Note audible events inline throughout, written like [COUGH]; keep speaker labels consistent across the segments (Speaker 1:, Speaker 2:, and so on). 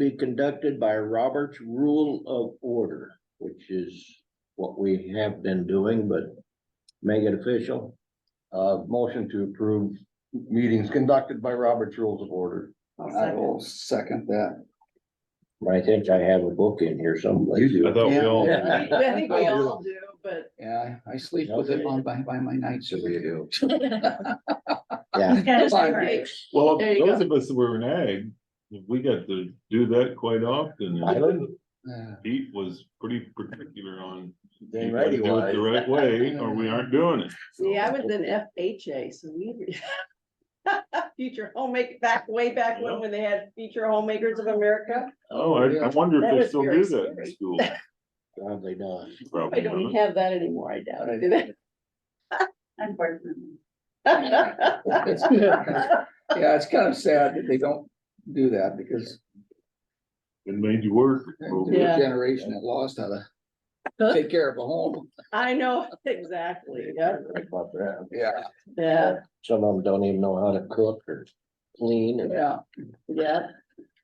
Speaker 1: be conducted by Robert's Rule of Order, which is what we have been doing, but make it official.
Speaker 2: Uh, motion to approve meetings conducted by Robert's Rules of Order.
Speaker 3: I will second that.
Speaker 1: I think I have a book in here someplace.
Speaker 2: You do.
Speaker 4: I thought we all,
Speaker 3: Yeah.
Speaker 5: [LAUGHS] I think we all do, but
Speaker 3: Yeah, I sleep with it on by, by my night. So
Speaker 5: [LAUGHS]
Speaker 3: we do.
Speaker 1: Yeah,
Speaker 6: Yeah,
Speaker 3: [LAUGHS]
Speaker 6: it's
Speaker 3: Five
Speaker 6: different.
Speaker 3: years.
Speaker 4: well,
Speaker 5: There you
Speaker 4: those of us that were in ag, we got to do that quite often.
Speaker 1: [LAUGHS] I
Speaker 4: and
Speaker 1: don't-
Speaker 3: Yeah.
Speaker 4: Pete was pretty particular on.
Speaker 1: Then
Speaker 4: you gotta
Speaker 1: ready
Speaker 4: do it
Speaker 1: wise.
Speaker 4: The
Speaker 5: [LAUGHS]
Speaker 4: right way, or we aren't doing it.
Speaker 5: see, I was in FHA, so we. [LAUGHS] Future homemaker, back way back when, when they had Future Homemakers of America.
Speaker 4: Oh, I, I wonder
Speaker 5: That
Speaker 4: if they
Speaker 5: was
Speaker 4: still
Speaker 5: very
Speaker 4: do that in
Speaker 5: scary. [LAUGHS]
Speaker 4: school.
Speaker 1: Probably not.
Speaker 5: I
Speaker 4: Probably
Speaker 5: don't
Speaker 4: not.
Speaker 5: even have that anymore, I doubt it. do they?
Speaker 6: [LAUGHS] Unfortunately.
Speaker 3: It's- Yeah, it's kind of sad that they don't do that because
Speaker 4: It made you work.
Speaker 3: there's a
Speaker 5: Yeah.
Speaker 3: generation that lost how to take care of a home.
Speaker 5: [LAUGHS] I know, [LAUGHS] exactly, yeah,
Speaker 1: About that.
Speaker 3: Yeah.
Speaker 5: yeah,
Speaker 1: Some of them don't even know how to cook or clean, and they
Speaker 3: Yeah.
Speaker 5: yeah.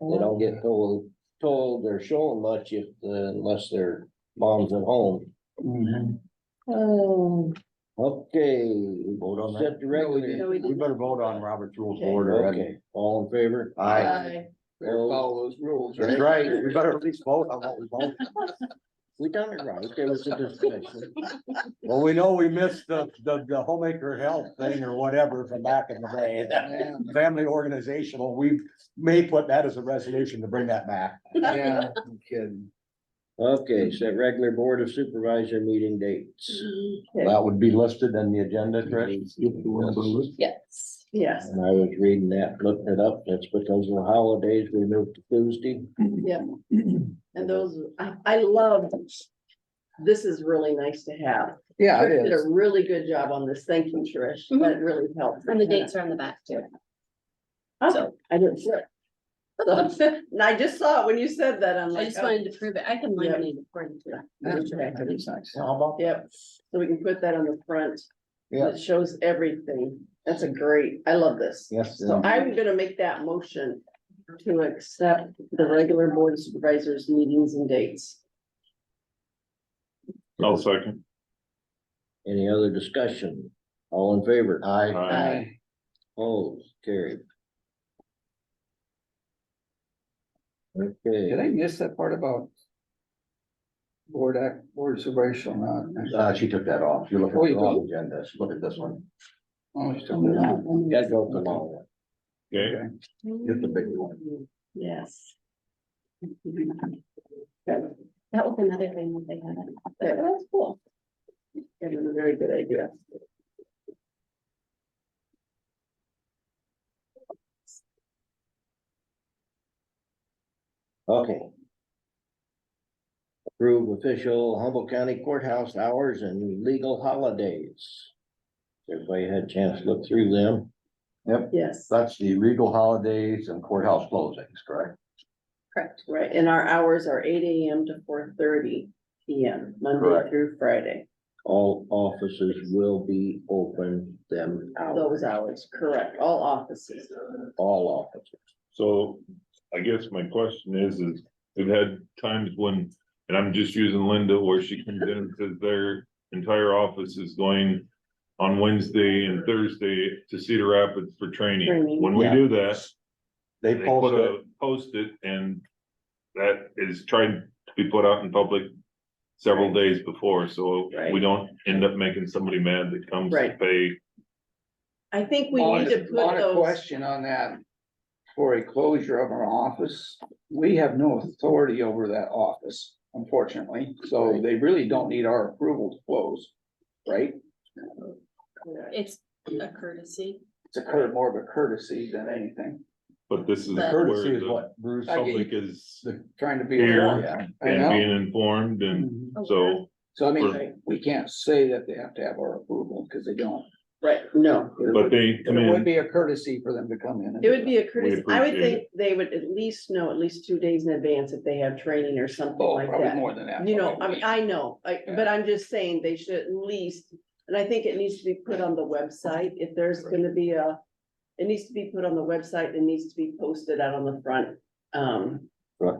Speaker 1: don't get told, told or shown much if, uh, unless their mom's at home.
Speaker 3: Mhm.
Speaker 5: Oh,
Speaker 1: Okay,
Speaker 2: Vote on that?
Speaker 1: set the
Speaker 3: No, we
Speaker 1: regular.
Speaker 3: didn't.
Speaker 5: no, we
Speaker 2: We
Speaker 5: didn't.
Speaker 2: better vote on Robert's Rules of
Speaker 5: Okay.
Speaker 2: Order. and-
Speaker 1: Okay, all in favor?
Speaker 5: Aye.
Speaker 3: Better follow those rules,
Speaker 2: That's
Speaker 3: right?
Speaker 2: right, we better at least vote on what we vote.
Speaker 1: We done it right, there was a discussion.
Speaker 2: Well, we know we missed the, the, the homemaker health thing or whatever from back in the day.
Speaker 3: Yeah.
Speaker 2: Family organizational, we may put that as a resolution to bring that back.
Speaker 3: Yeah, no kidding.
Speaker 1: Okay, set regular board of supervisor meeting dates.
Speaker 5: Okay.
Speaker 2: would be listed in the agenda,
Speaker 6: Yes.
Speaker 5: Yes,
Speaker 1: And I was reading that, looking it up, that's because of the holidays, we moved to Tuesday.
Speaker 5: and those, I, I love. This is really nice to have.
Speaker 3: Yeah,
Speaker 5: Trish
Speaker 3: it
Speaker 5: did a
Speaker 3: is. Mm-hmm.
Speaker 5: really good job on this. Thank you, Trish. That really helped.
Speaker 6: And the dates are on the back too.
Speaker 5: Oh,
Speaker 6: So-
Speaker 5: I didn't see it. [LAUGHS] And I just saw it when you said that. I'm
Speaker 6: I
Speaker 5: like,
Speaker 6: just
Speaker 5: oh,
Speaker 6: wanted to prove it. I can
Speaker 5: Yeah.
Speaker 6: laminate according to
Speaker 3: That's right. That is nice.
Speaker 2: How about?
Speaker 5: yep. So we can put that on the front.
Speaker 2: Yeah.
Speaker 5: It shows everything. That's a great, I love this.
Speaker 2: Yes.
Speaker 5: So I'm gonna make that motion to accept the regular board of supervisors meetings and dates.
Speaker 4: I'll second.
Speaker 1: Any other discussion? All in favor? Aye.
Speaker 4: Aye.
Speaker 1: Opposed, carried.
Speaker 3: Did I
Speaker 1: Okay,
Speaker 3: miss that part about? Board act, board supervisor shall not.
Speaker 2: Uh, she took that off. You're looking
Speaker 3: Oh,
Speaker 2: at
Speaker 3: you
Speaker 2: the wrong agenda. Look at this one.
Speaker 3: Oh, it's still there.
Speaker 1: you gotta go for the long one.
Speaker 4: Okay,
Speaker 2: It's the big one.
Speaker 5: Yes.
Speaker 6: that. That was another thing that they had.
Speaker 5: That was cool. That was a very good idea.
Speaker 1: Okay. Approve official Humboldt County courthouse hours and legal holidays. Everybody had a chance to look through them.
Speaker 5: Yes,
Speaker 2: That's the regal holidays and courthouse closings, correct?
Speaker 6: Correct.
Speaker 5: right. And our hours are eight AM to four thirty PM, Monday
Speaker 2: Correct.
Speaker 5: through Friday.
Speaker 1: All offices will be open them hours,
Speaker 5: Those hours, correct. All offices.
Speaker 1: all offices.
Speaker 4: so I guess my question is, is we've had times when, and I'm just using Linda where she comes in and says their entire office is going on Wednesday and Thursday to Cedar Rapids for training.
Speaker 5: Training,
Speaker 4: When we
Speaker 1: yeah.
Speaker 4: do that,
Speaker 2: They
Speaker 4: They put
Speaker 2: posted.
Speaker 4: a, post it and that is tried to be put out in public several days before, so we
Speaker 5: Right.
Speaker 4: don't end up making somebody mad that comes to
Speaker 5: Right.
Speaker 4: pay.
Speaker 5: I think we need to
Speaker 3: Honest-
Speaker 5: put
Speaker 3: honest
Speaker 5: those,
Speaker 3: Question on that. For a closure of our office, we have no authority over that office, unfortunately, so they really don't need our approval to close. Right?
Speaker 6: It's a courtesy.
Speaker 3: It's a cur, more of a courtesy than anything,
Speaker 4: But this is
Speaker 6: But-
Speaker 4: where
Speaker 2: Courtesy is
Speaker 4: the
Speaker 2: what Bruce.
Speaker 3: I get you.
Speaker 4: public is
Speaker 3: the, trying to be.
Speaker 4: Here.
Speaker 2: Yeah.
Speaker 3: I
Speaker 4: and
Speaker 3: know.
Speaker 4: being informed and
Speaker 3: Mhm.
Speaker 4: so
Speaker 3: So I mean, we can't say that they have to have our approval, because they don't.
Speaker 5: right, no. it
Speaker 4: but
Speaker 5: would-
Speaker 4: they
Speaker 3: But
Speaker 4: come
Speaker 3: It would
Speaker 4: in,
Speaker 3: be a courtesy for them to come in. and
Speaker 5: It
Speaker 3: do
Speaker 5: would be a courtesy. I would
Speaker 4: appreciate
Speaker 5: think they would at least know at least two days in advance if they have training or
Speaker 3: that.
Speaker 5: something
Speaker 3: Oh,
Speaker 5: like
Speaker 3: probably
Speaker 5: that.
Speaker 3: more than that.
Speaker 5: You know, I
Speaker 3: probably.
Speaker 5: mean, I know, like, but I'm just saying they should at least, and I think it needs to be put on the website. If there's gonna be a. It needs to be put on the website. It needs to be posted out on the front. Um,